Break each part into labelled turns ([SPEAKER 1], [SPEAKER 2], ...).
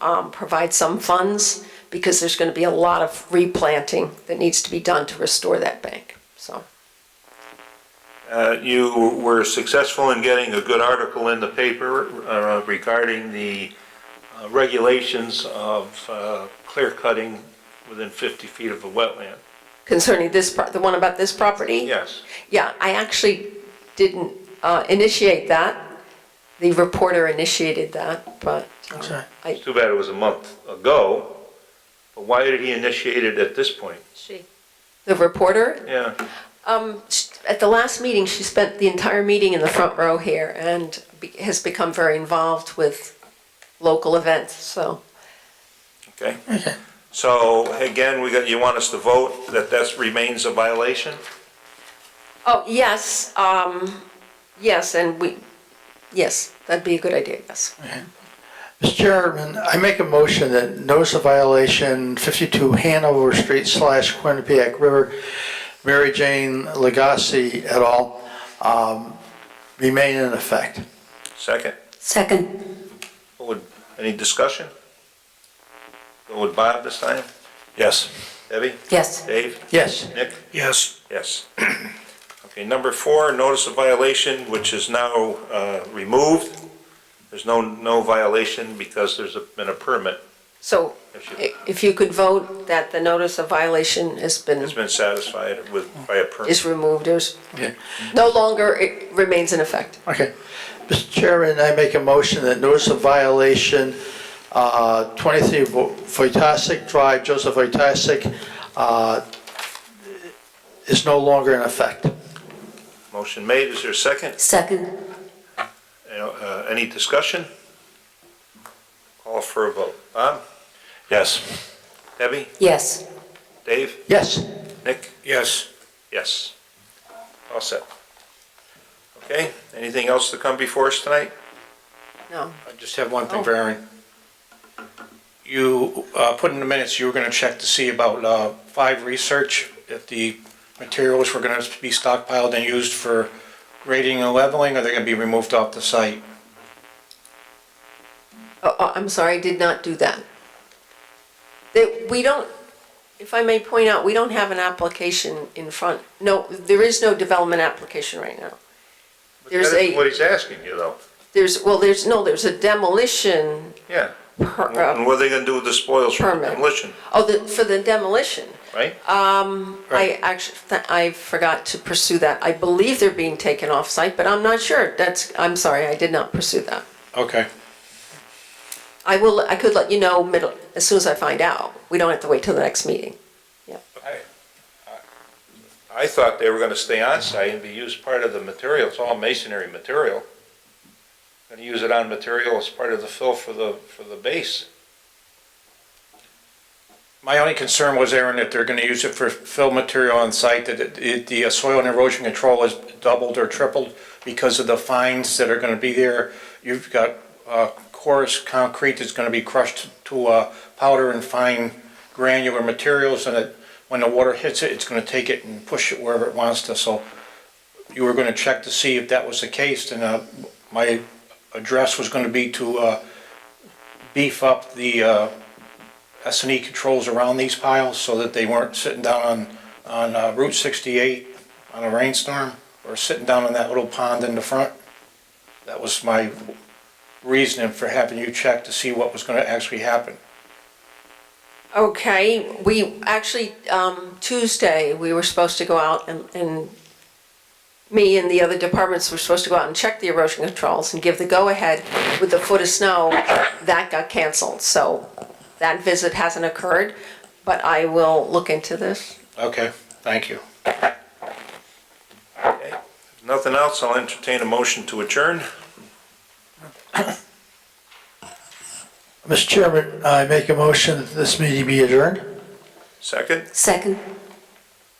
[SPEAKER 1] um, provide some funds because there's going to be a lot of replanting that needs to be done to restore that bank. So,
[SPEAKER 2] Uh, You were successful in getting a good article in the paper uh, regarding the uh, regulations of uh, clear cutting within 50 feet of a wetland.
[SPEAKER 1] concerning this, pro- the one about this property?
[SPEAKER 2] Yes.
[SPEAKER 1] Yeah, I actually didn't uh, initiate that. The reporter initiated that, but uh,
[SPEAKER 3] Okay.
[SPEAKER 1] I,
[SPEAKER 2] It's too bad it was a month ago, but why did he initiate it at this point?
[SPEAKER 4] She.
[SPEAKER 1] the reporter,
[SPEAKER 2] Yeah,
[SPEAKER 1] um, sh- at the last meeting, she spent the entire meeting in the front row here and be- has become very involved with local events, so.
[SPEAKER 2] okay. So again, we got, you want us to vote that that remains a violation?
[SPEAKER 1] Oh, yes, um, yes, and we, yes, that'd be a good idea, yes.
[SPEAKER 3] Mr. Chairman, I make a motion that notice of violation 52 Hanover Street slash Quinnipiac River, Mary Jane Legacy et al., um, remain in effect.
[SPEAKER 2] Second?
[SPEAKER 5] Second.
[SPEAKER 2] What would- Any discussion? Go with Bob this time?
[SPEAKER 6] Yes.
[SPEAKER 2] Debbie?
[SPEAKER 5] Yes.
[SPEAKER 2] Dave?
[SPEAKER 3] Yes.
[SPEAKER 2] Nick?
[SPEAKER 6] Yes.
[SPEAKER 2] Yes. Okay, number four, notice of violation, which is now uh, removed. There's no, no violation because there's a- been a permit.
[SPEAKER 1] So
[SPEAKER 2] issue.
[SPEAKER 1] i- if you could vote that the notice of violation has been,
[SPEAKER 2] It's been satisfied with, by a permit.
[SPEAKER 1] is removed, is,
[SPEAKER 3] Okay.
[SPEAKER 1] no longer, it remains in effect.
[SPEAKER 3] Okay. Mr. Chairman, I make a motion that notice of violation, uh, 23 Vo- Voitasic Drive, Joseph Voitasic, uh, is no longer in effect.
[SPEAKER 2] Motion made, is there a second?
[SPEAKER 5] Second.
[SPEAKER 2] Uh, Any discussion? Call for a vote. Bob?
[SPEAKER 6] Yes.
[SPEAKER 2] Debbie?
[SPEAKER 5] Yes.
[SPEAKER 2] Dave?
[SPEAKER 3] Yes.
[SPEAKER 2] Nick?
[SPEAKER 6] Yes.
[SPEAKER 2] Yes. All set. Okay, anything else to come before us tonight?
[SPEAKER 1] No,
[SPEAKER 6] I just have one thing for Aaron. You, uh, put in the minutes, you were gonna check to see about, uh, five research, if the materials were gonna be stockpiled and used for grading and leveling, or they're gonna be removed off the site.
[SPEAKER 1] Oh, oh, I'm sorry, I did not do that. That, we don't, if I may point out, we don't have an application in front, no, there is no development application right now. There's
[SPEAKER 2] That isn't
[SPEAKER 1] a,
[SPEAKER 2] What he's asking you, though.
[SPEAKER 1] there's, well, there's, no, there's a demolition
[SPEAKER 2] Yeah.
[SPEAKER 1] per-
[SPEAKER 2] And
[SPEAKER 1] uh,
[SPEAKER 2] what are they gonna do with the spoils from the
[SPEAKER 1] Permit.
[SPEAKER 2] demolition,
[SPEAKER 1] Oh, the, for the demolition.
[SPEAKER 2] right?
[SPEAKER 1] Um, I actually, I forgot to pursue that. I believe they're being taken off-site, but I'm not sure. That's, I'm sorry, I did not pursue that.
[SPEAKER 6] Okay.
[SPEAKER 1] I will, I could let you know middle, as soon as I find out. We don't have to wait till the next meeting.
[SPEAKER 2] I thought they were gonna stay on site and be used part of the material, it's all masonry material. Gonna use it on material as part of the fill for the, for the base.
[SPEAKER 6] My only concern was, Aaron, that they're gonna use it for fill material on site, that it- it, the uh, soil and erosion control is doubled or tripled because of the fines that are gonna be there. You've got, uh, porous concrete that's gonna be crushed to, uh, powder and fine granular materials, and it, when the water hits it, it's gonna take it and push it wherever it wants to, so you were gonna check to see if that was the case, and, uh, my address was gonna be to, uh, beef up the, uh, S and E controls around these piles so that they weren't sitting down on, on uh, Route sixty-eight on a rainstorm or sitting down in that little pond in the front. That was my reasoning for having you check to see what was gonna actually happen.
[SPEAKER 1] Okay, we, actually, um, Tuesday, we were supposed to go out and, and me and the other departments were supposed to go out and check the erosion controls and give the go-ahead with the foot of snow. That got canceled, so that visit hasn't occurred, but I will look into this.
[SPEAKER 6] Okay, thank you.
[SPEAKER 2] If Nothing else, I'll entertain a motion to adjourn.
[SPEAKER 3] Mr. Chairman, I make a motion that this meeting be adjourned.
[SPEAKER 2] Second,
[SPEAKER 5] Second.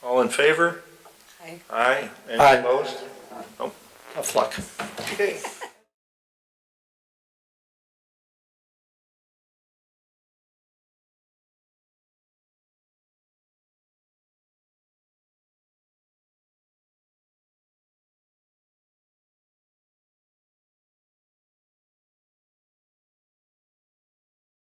[SPEAKER 2] all in favor?
[SPEAKER 5] Aye.
[SPEAKER 2] Aye, and
[SPEAKER 3] Aye.
[SPEAKER 2] opposed?
[SPEAKER 3] Tough luck.
[SPEAKER 2] Okay.